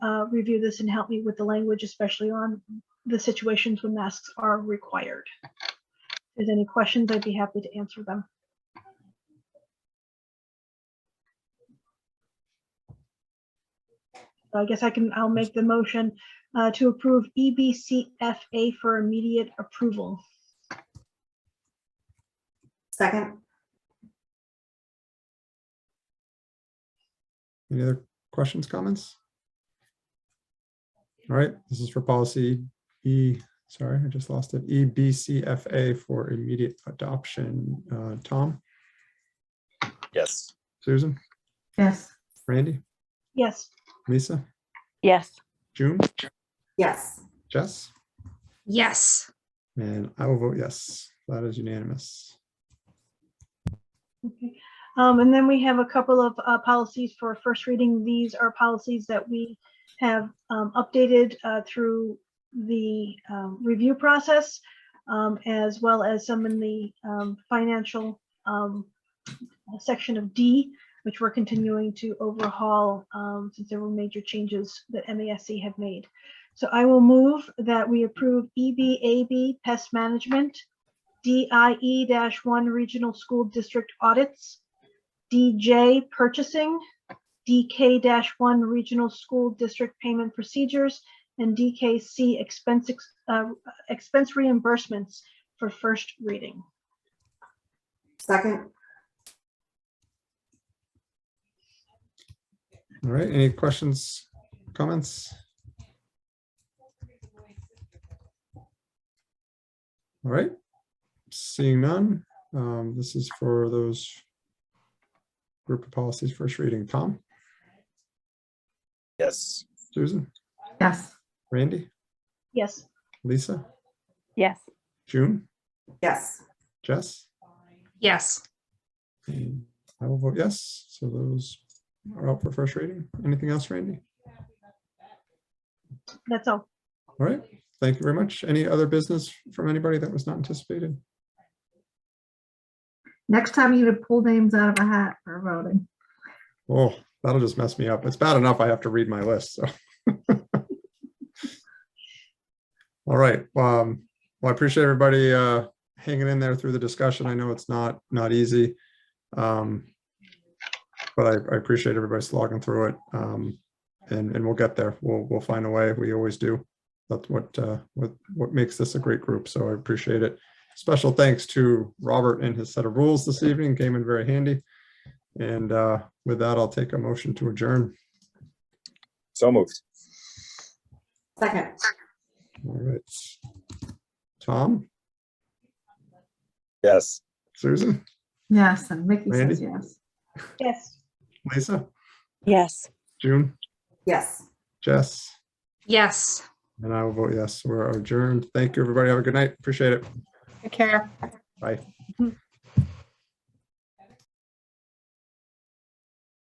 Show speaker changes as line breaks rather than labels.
uh, review this and help me with the language, especially on the situations when masks are required. If there's any questions, I'd be happy to answer them. So I guess I can, I'll make the motion uh, to approve EBCFA for immediate approval.
Second,
Any other questions, comments? All right, this is for policy E, sorry, I just lost it, E, EBCFA for immediate adoption. Uh, Tom,
Yes.
Susan,
yes,
Randy,
Yes,
Lisa,
yes,
June,
yes,
Jess,
Yes.
and I will vote yes. That is unanimous.
Okay. Um, and then we have a couple of, uh, policies for first reading. These are policies that we have, um, updated, uh, through the, um, review process, um, as well as some in the, um, financial, um, section of D, which we're continuing to overhaul, um, since there were major changes that MASC have made. So I will move that we approve E EBAB pest management, DIE E one regional school district audits, DJ purchasing, DK one regional school district payment procedures, and DKC expense, ex- uh, expense reimbursements for first reading.
second,
All right, any questions, comments? All right, seeing none, um, this is for those group of policies first reading. Tom,
Yes.
Susan,
yes,
Randy,
Yes,
Lisa,
yes,
June,
yes,
Jess?
Yes.
And I will vote yes, so those are out for first reading. Anything else, Randy?
that's all.
All right, thank you very much. Any other business from anybody that was not anticipated?
next time you would pull names out of a hat for voting.
Oh, that'll just mess me up. It's bad enough I have to read my list, so. All right, um, well, I appreciate everybody uh hanging in there through the discussion. I know it's not, not easy. Um But I, I appreciate everybody slogging through it. Um And, and we'll get there. We'll, we'll find a way. We always do. That's what, uh what, what makes this a great group, so I appreciate it. Special thanks to Robert and his set of rules this evening, came in very handy. And uh, with that, I'll take a motion to adjourn.
So moved.
second,
All right. Tom,
Yes.
Susan,
Yes, and Mickey
Randy?
says yes.
Yes.
Lisa,
yes.
June,
yes.
Jess,
Yes.
and I will vote yes. We're adjourned. Thank you, everybody. Have a good night. Appreciate it.
Take care.
Bye.